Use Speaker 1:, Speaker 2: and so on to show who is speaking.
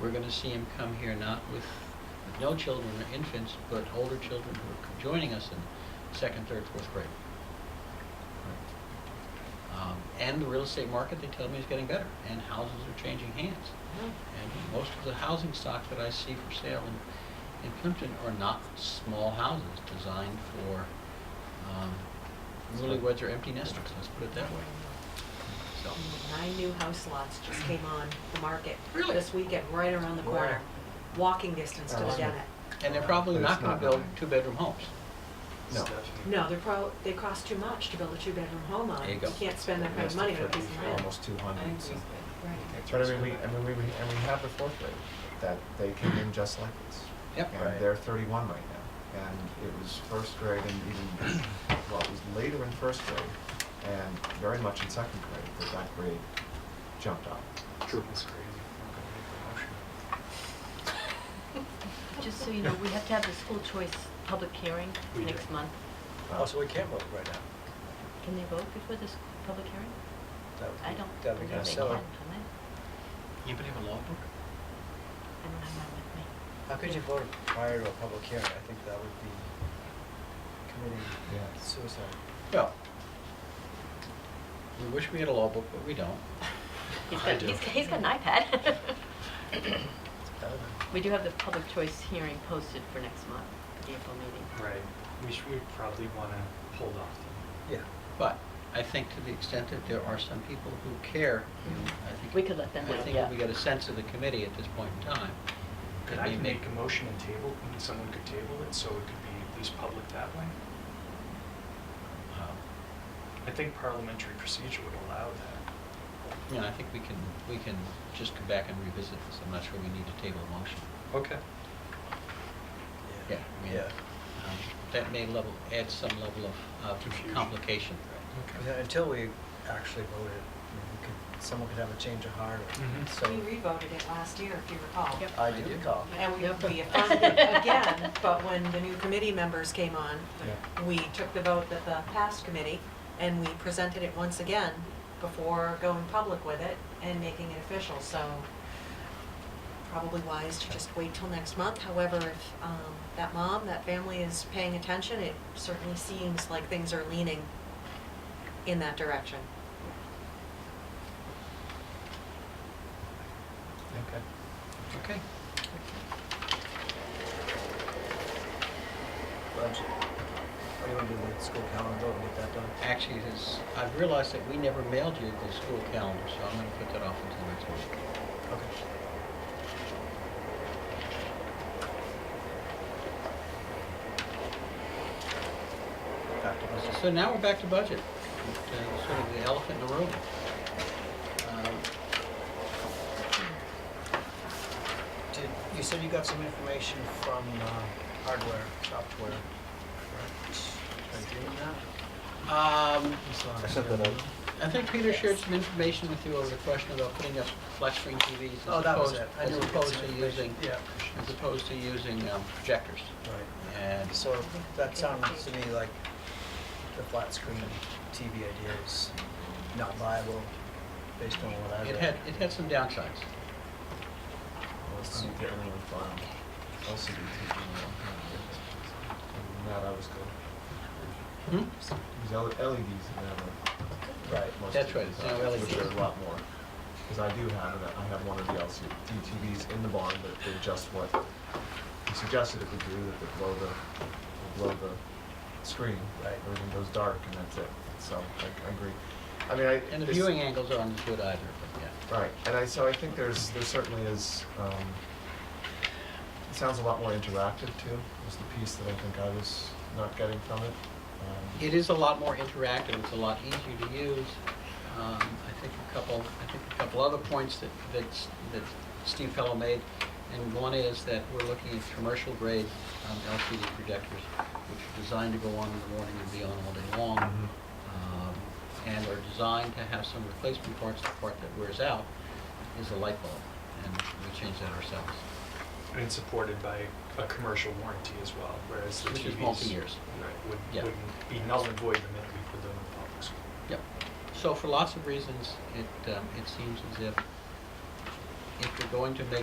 Speaker 1: we're gonna see him come here not with, with no children or infants, but older children who are co- joining us in second, third, fourth grade. Um, And the real estate market, they tell me, is getting better, and houses are changing hands. And most of the housing stock that I see for sale in, in Plimpton are not small houses designed for um, newlyweds or empty nesters, let's put it that way. So,
Speaker 2: Nine new house lots just came on the market.
Speaker 1: Really?
Speaker 2: This weekend, right around the corner, walking distance to the
Speaker 3: Awesome.
Speaker 2: Dennett.
Speaker 1: and they're probably
Speaker 3: But it's
Speaker 1: not gonna
Speaker 3: not
Speaker 1: build
Speaker 3: nine.
Speaker 1: two-bedroom homes.
Speaker 3: No.
Speaker 2: No, they're pro, they cost too much to build a two-bedroom home on.
Speaker 1: There you go.
Speaker 2: can't spend that kind of money on a piece of land.
Speaker 3: Almost two
Speaker 4: I
Speaker 3: hundred,
Speaker 4: think
Speaker 3: so.
Speaker 4: we-
Speaker 2: Right.
Speaker 3: But I mean, we, I mean, we, we- and we have the fourth grade, that they came in just like this.
Speaker 1: Yep.
Speaker 3: And they're thirty-one right now, and it was first grade and even, well, it was later in first grade, and very much in second grade, that that grade jumped up.
Speaker 5: True. That's crazy. I'm
Speaker 6: Just so you know, we have to have the school choice public hearing
Speaker 5: We
Speaker 6: next
Speaker 5: do.
Speaker 6: month.
Speaker 3: Uh,
Speaker 7: Oh, so we can't vote right now?
Speaker 6: Can they vote before this public hearing?
Speaker 7: That would
Speaker 6: I
Speaker 7: be-
Speaker 6: don't
Speaker 7: that would be
Speaker 6: believe they
Speaker 7: kinda
Speaker 6: can, can they?
Speaker 7: silly.
Speaker 1: Anybody have a law book?
Speaker 6: I don't have mine with me.
Speaker 7: How could you vote prior to a public hearing? I think that would be committing
Speaker 3: Yeah.
Speaker 7: suicide.
Speaker 1: Well, we wish we had a law book, but we don't.
Speaker 6: He's
Speaker 1: I
Speaker 6: got-
Speaker 1: do.
Speaker 6: he's- He's got an iPad.
Speaker 7: It's better than-
Speaker 6: We do have the public choice hearing posted for next month, the April meeting.
Speaker 5: Right, we should, we probably wanna hold off. then.
Speaker 7: Yeah.
Speaker 1: But I think to the extent that there are some people who care, I think.
Speaker 6: We could let them
Speaker 1: I
Speaker 6: know,
Speaker 1: think
Speaker 6: yeah.
Speaker 1: if we get a sense of the committee at this point in time.
Speaker 5: Could
Speaker 1: it
Speaker 5: I
Speaker 1: may
Speaker 5: make a motion and table, and someone could table it, so it could be at least public that way?
Speaker 1: uh,
Speaker 5: I think parliamentary procedure would allow that.
Speaker 1: You know, I think we can, we can just come back and revisit this. I'm not sure we need to table a motion.
Speaker 7: Okay.
Speaker 1: Yeah. I mean,
Speaker 7: Yeah.
Speaker 1: um, That may level, add some level of uh,
Speaker 5: Confusion.
Speaker 1: complication.
Speaker 7: You know, Until we actually voted, I mean, we could, someone could have a change of heart, or-
Speaker 5: Mhm.
Speaker 7: so.
Speaker 2: We revoted it last year, if you recall.
Speaker 6: Yep.
Speaker 7: I
Speaker 1: I
Speaker 7: do
Speaker 1: do.
Speaker 7: recall.
Speaker 2: And we,
Speaker 6: Yep.
Speaker 2: we affirmed it again, but when the new committee members came on,
Speaker 3: Yeah.
Speaker 2: we took the vote that the past committee, and we presented it once again before going public with it and making it official, so probably wise to just wait till next month. However, if um, that mom, that family is paying attention, it certainly seems like things are leaning in that direction.
Speaker 7: Okay.
Speaker 1: Okay.
Speaker 7: Budget. Are you gonna do the school calendar vote and get that done?
Speaker 1: Actually, it is, I've realized that we never mailed you the school calendar, so I'm going to put that off until next week.
Speaker 7: Okay.
Speaker 3: Back to us.
Speaker 1: So now we're back to budget, uh, sort of the elephant in the room. Um,
Speaker 7: Did, you said you got some information from uh, hardware, software, right? Did I do that?
Speaker 1: Um,
Speaker 7: Sorry.
Speaker 3: I sent that out.
Speaker 1: I think Peter shared some information with you over the question about putting up flat screen TVs
Speaker 7: Oh,
Speaker 1: as
Speaker 7: that was
Speaker 1: opposed,
Speaker 7: it. I
Speaker 1: as
Speaker 7: knew we got
Speaker 1: opposed
Speaker 7: some
Speaker 1: to
Speaker 7: information.
Speaker 1: using,
Speaker 7: Yeah.
Speaker 1: as opposed to using um, projectors.
Speaker 7: Right.
Speaker 1: And
Speaker 7: So that sounds to me like the flat screen TV idea is not viable based on what I read.
Speaker 1: it had, it had some downsides.
Speaker 3: Let's see, get a little fun. LCD TV. and That I was good.
Speaker 1: Hmm?
Speaker 3: It was Mm-hmm. L- E LEDs and that were.
Speaker 7: Right.
Speaker 3: most
Speaker 1: That's
Speaker 3: of
Speaker 1: right,
Speaker 3: these
Speaker 1: it's now
Speaker 3: are-
Speaker 1: LED.
Speaker 3: Which E are a lot more, because I do have, that- I have one of the LCD TVs in the barn, but they're just what he suggested it would do, that they blow the, they blow the screen.
Speaker 7: Right.
Speaker 3: Everything goes dark and that's it, so I, I agree. I mean, I.
Speaker 1: And the
Speaker 3: it's-
Speaker 1: viewing angles aren't as good either, but yeah.
Speaker 3: Right, and I, so I think there's, there certainly is, um, it sounds a lot more interactive too, was the piece that I think I was not getting from it. Um,
Speaker 1: It is a lot more interactive, it's a lot easier to use. Um, I think a couple, I think a couple other points that, that, S- that Steve Fellow made, and one is that we're looking at commercial grade um, LCD projectors, which are designed to go on in the morning and be on all day long, um, and are designed to have some replacement parts, the part that wears out is a light bulb, and we change that ourselves.
Speaker 5: And it's supported by a commercial warranty as well, whereas the TVs.
Speaker 1: Which is multi-years.
Speaker 5: Right, would,
Speaker 1: Yeah.
Speaker 5: wouldn't be null and void the minute we put them in the public school.
Speaker 1: Yep. So for lots of reasons, it, um, it seems as if if you're going to make